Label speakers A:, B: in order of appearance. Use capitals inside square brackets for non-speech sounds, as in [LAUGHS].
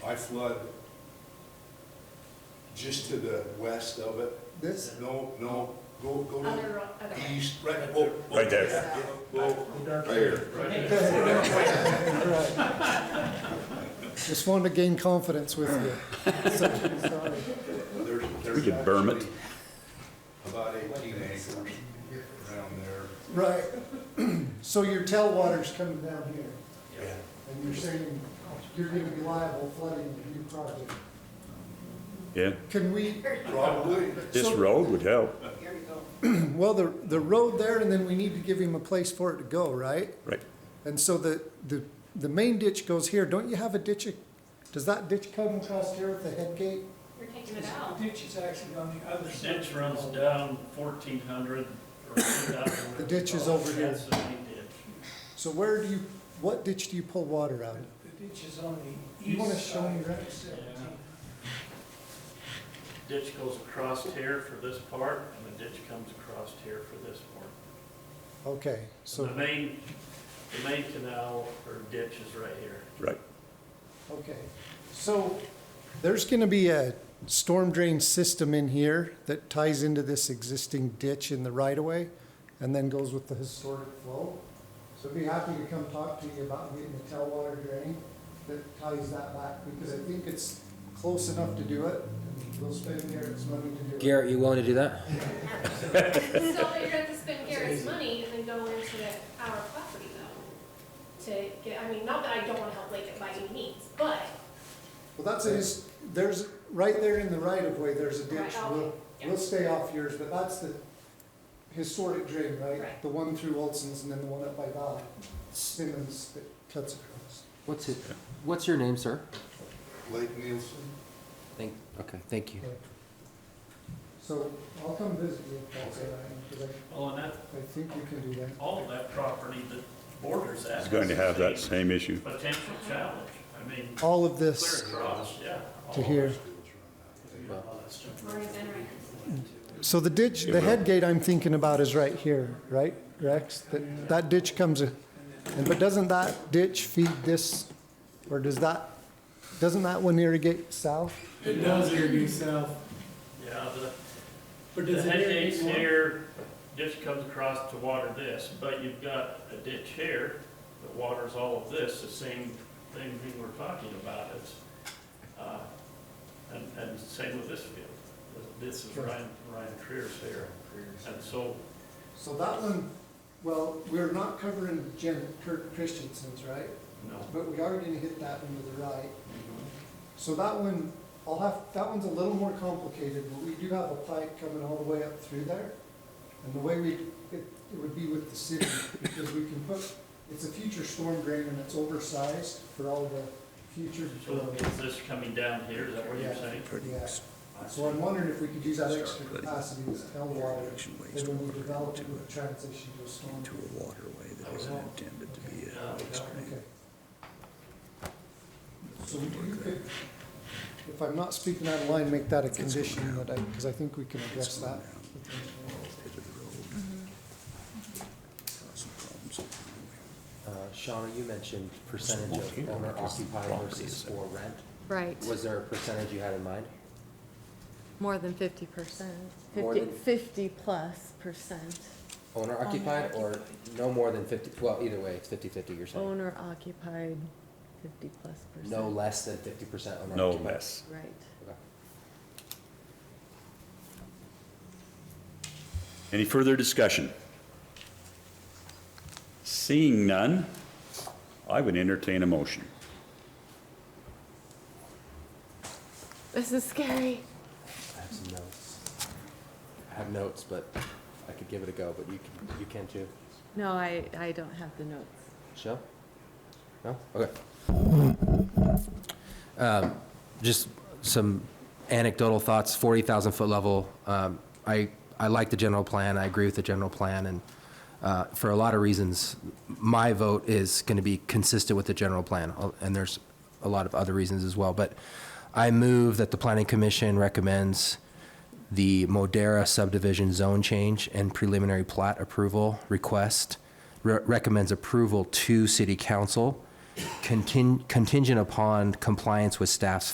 A: I flood just to the west of it.
B: This,
A: No, no, go, go to
C: Other, ro- okay.
A: east, right, oh. oh,
D: Right there.
A: yeah, yeah, Go, there.
B: [LAUGHS] right. Just wanted to gain confidence with you. So, sorry.
A: There's, there's.
D: We could berm it.
A: actually About eighteen acres around there.
B: Right. [CLEARS THROAT] So your tailwater's coming down here,
A: Yeah.
B: and you're saying you're gonna be liable flooding the new project.
D: Yeah,
B: Can we,
A: Probably.
D: this
B: So-
D: road would help,
B: [CLEARS THROAT] well, the, the road there, and then we need to give him a place for it to go, right?
D: right?
B: And so the, the, the main ditch goes here. Don't you have a ditch, does that ditch come across here at the head gate?
C: We're taking it out.
E: Ditch is actually on the other side.
F: Ditch runs down fourteen hundred or 2,000.
B: The ditch is over here.
F: That's the main ditch.
B: So where do you, what ditch do you pull water out of?
E: The ditch is on the
B: You wanna
E: east
B: show me
E: side
B: that?
E: of the 17.
F: Ditch goes across here for this part, and the ditch comes across here for this part.
B: Okay, so,
F: The main, the main canal or ditch is right here.
D: Right.
B: okay. So there's gonna be a storm drain system in here that ties into this existing ditch in the right of way and then goes with the historic flow. So I'd be happy to come talk to you about getting a tailwater drain that ties that back because I think it's close enough to do it. and We'll spend Garrett's money to do it.
G: Garrett, you willing to do that?
C: So you're gonna have to spend Garrett's money and then go into our property though, to get, I mean, not that I don't wanna help Lake it by any means, but,
B: Well, that's a, his- there's, right there in the right of way, there's a ditch.
C: Right, okay,
B: We'll,
C: yeah.
B: we'll stay off yours, but that's the historic drain, right?
C: Right.
B: The one through Olson's and then the one up by Valley, Simmons that cuts across.
G: What's it, what's your name, sir?
A: Lake Nielsen.
G: Thank, okay, thank you.
B: Right. So I'll come visit you if that's all right, because
F: Well, and that,
B: I, I think we can do that.
F: all that property that borders that.
D: It's going to have that
F: is
D: same issue.
F: a Potential challenge. I mean,
B: All of
F: clear
B: this
F: across, yeah.
B: to here.
C: Maureen's in right.
B: So the ditch, the head gate I'm thinking about is right here, right, Rex? That, that ditch comes, in- and, but doesn't that ditch feed this, or does that, doesn't that one irrigate south?
E: It does irrigate south,
F: Yeah, the,
E: but
F: The
E: does it
F: head
E: irrigate
F: gate's
E: more?
F: here, ditch comes across to water this, but you've got a ditch here that waters all of this, the same thing we were talking about, it's, uh, and, and same with this field. This is Ryan, Ryan Creer's here, and so,
B: So that one, well, we're not covering Jen, Kirk Christensen's, right?
F: no.
B: But we are gonna hit that one to the right.
H: Mm-hmm.
B: So that one, I'll have, that one's a little more complicated, but we do have a pipe coming all the way up through there. And the way we, it, it would be with the city, because we can put, it's a future storm drain and it's oversized for all the future.
F: So is this coming down here, is that what you're saying?
B: Yeah. So I'm wondering if we could use that extra capacity to tell water, then when we develop it, with transition to a storm.
H: to a waterway that isn't intended to be a
F: Yeah, yeah.
B: Okay. So you could, if I'm not speaking out of line, make that a condition that I, because I think we can address that.
H: pit of the road. Causing problems on the
G: Uh, Shauna, you mentioned percentage of owner occupied versus for rent.
I: Right,
G: Was there a percentage you had in mind?
I: more than fifty percent,
G: More
I: fifty,
G: than-
I: fifty plus percent,
G: Owner occupied or no more than fifty, well, either way, it's fifty fifty you're saying.
I: owner occupied, fifty plus percent.
G: No less than fifty percent owner
D: No
G: occupied.
D: less.
I: Right.
G: Okay.
D: Any further discussion? Seeing none, I would entertain a motion.
I: This is scary.
G: I have some notes. I have notes, but I could give it a go, but you can, you can too.
I: No, I, I don't have the notes.
G: Show? No? Okay. Um, Just some anecdotal thoughts, 40,000 foot level. Um, I, I like the general plan, I agree with the general plan, and uh, for a lot of reasons, my vote is going to be consistent with the general plan, uh, and there's a lot of other reasons as well, but I move that the planning commission recommends the Modera subdivision zone change and preliminary plat approval request, re- recommends approval to city council contin- contingent upon compliance with staff's